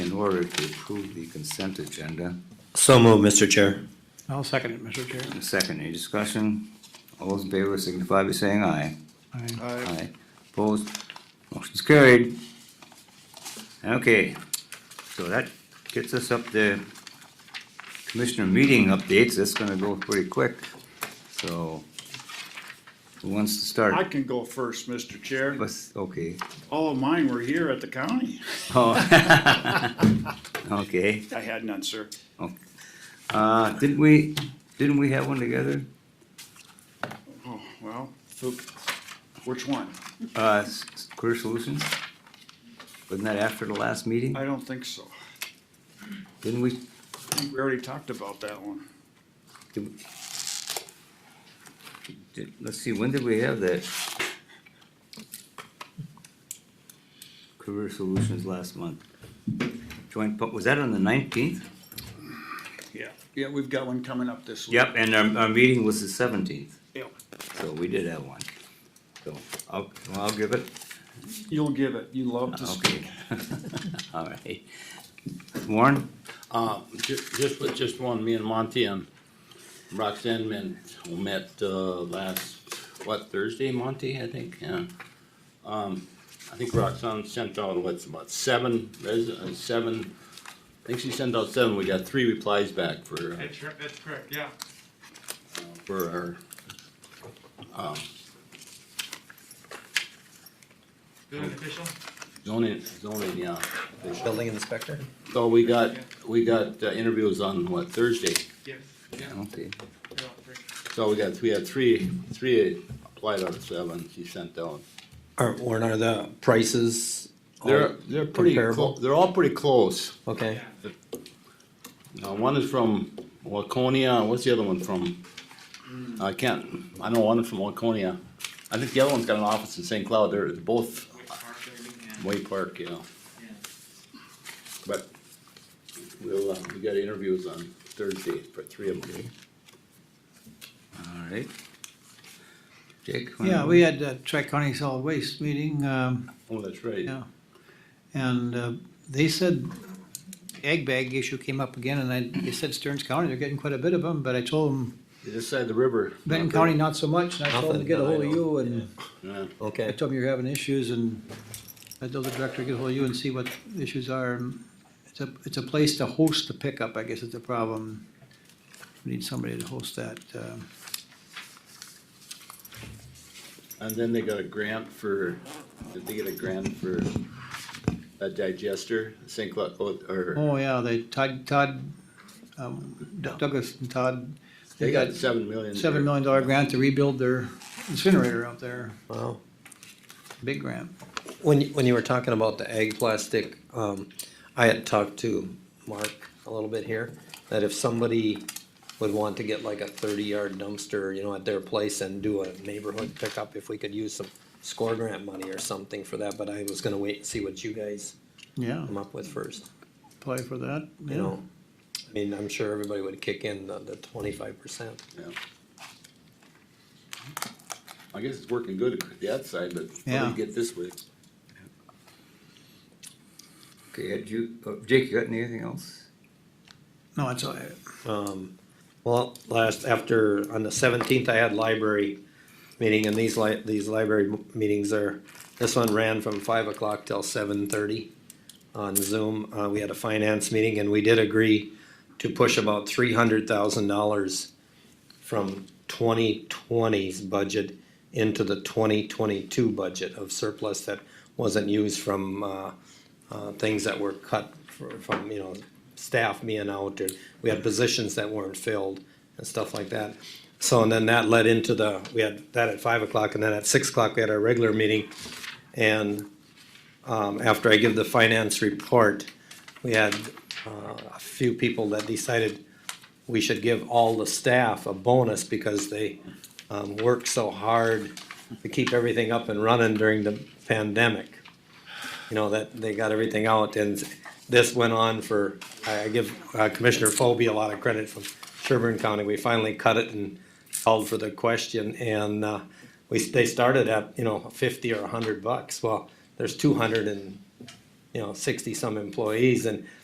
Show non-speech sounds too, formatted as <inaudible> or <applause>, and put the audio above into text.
order to approve the consent agenda. So moved, Mr. Chair. I'll second it, Mr. Chair. Second, any discussion? All those in favor signify by saying aye. Aye. Aye. Opposed? Motion's carried. Okay, so that gets us up to commissioner meeting updates. That's gonna go pretty quick. So who wants to I start? can go first, Mr. Chair. Let's- okay. All of mine were here at the county. Oh. <laughs> Okay. I had none, sir. Uh, didn't we, didn't we have one together? Oh, well, who- which one? Uh, s- s- Career Solutions? Wasn't that after the last meeting? I don't think so. Didn't we, I think We already talked about that one. did, we- did- let's see, when did we have that? Career Solutions last month. Joint, pu- was that on the nineteenth? Yeah. Yeah, we've got one coming up this week. Yep, and our, our meeting was the seventeenth, Yep. so we did have one. So, I'll, well, I'll give it, You'll give it. You love to speak. okay. <laughs> All right. Warren? Uh, ju- just, with just one, me and Monty and Roxanne men met, uh, last, what, Thursday, Monty, I think, yeah. Um, I think Roxanne sent out, what's about seven, res- uh, seven, I think she sent out seven, we got three replies back for, uh, That's, cor- that's correct, yeah. for our, um, Building official? zoning, zoning, yeah. Building inspector? So we got, we got uh, interviews on, what, Thursday? Yes, yeah, Okay. you're all free. So we got, we had three, three applied out of seven, she sent out. Or, or are the prices? all They're, they're pretty, comparable? clo- they're all pretty close. Okay, Uh, one is from Waconia, what's the other one from? I can't, I know one is from Waconia. I think the other one's got an office in St. Cloud, they're they're both Which park are you in? Way Park, you know, Yeah. but we'll, uh, we got interviews on Thursday for three of them. All right. Jake? wanna- Yeah, we had a Tri-County Solid Waste meeting, um, Oh, that's right. Yeah. and, uh, they said egg bag issue came up again, and I, they said Stearns County, they're getting quite a bit of them, but I told them, This side of the river. Benton County, not so much, and I told them to Nothing, get a no, I hold of know. you, and Yeah. I okay. told them you're having issues, and I told the director, get a hold of you and see what the issues are. and It's a, it's a place to host the pickup, I guess is the problem. We need somebody to host that, um, And then they got a grant for, did they get a grant for a digester, St. Cloud, oh, or, Oh, yeah, they, Todd, Todd, um, D- Douglas and Todd, they got seven million. seven million dollar grant to rebuild their incinerator out there, Wow. big grant. When, you- when you were talking about the egg plastic, um, I had talked to Mark a little bit here, that if somebody would want to get like a thirty-yard dumpster, you know, at their place and do a neighborhood pickup, if we could use some score grant money or something for that, but I was gonna wait and see what you guys Yeah, come up with first, apply for that, you yeah. know? I mean, I'm sure everybody would kick in the, the twenty-five percent. I guess it's working good at the outside, but how do Yeah. you get this way? Okay, had you, uh, Jake, you got anything else? No, it's, all right. Um, well, last, after, on the seventeenth, I had library meeting, and these li- these library m- meetings are, this one ran from five o'clock till seven thirty on Zoom. Uh, we had a finance meeting, and we did agree to push about three hundred thousand dollars from 2020's budget into the twenty twenty-two budget of surplus that wasn't used from, uh, uh, things that were cut fr- from, you know, staff being out, or we had positions that weren't filled and stuff like that. So, and then that led into the, we had that at five o'clock, and then at six o'clock, we had our regular meeting. And, um, after I give the finance report, we had, uh, a few people that decided we should give all the staff a bonus because they, um, worked so hard to keep everything up and running during the pandemic you know, that they got everything out and this went on for, I I give uh, Commissioner Phobie a lot of credit from Sherburne County. We finally cut it and called for the question and, uh, we, they started at, you know, fifty or a hundred bucks. Well, there's two hundred and, you know, sixty some employees and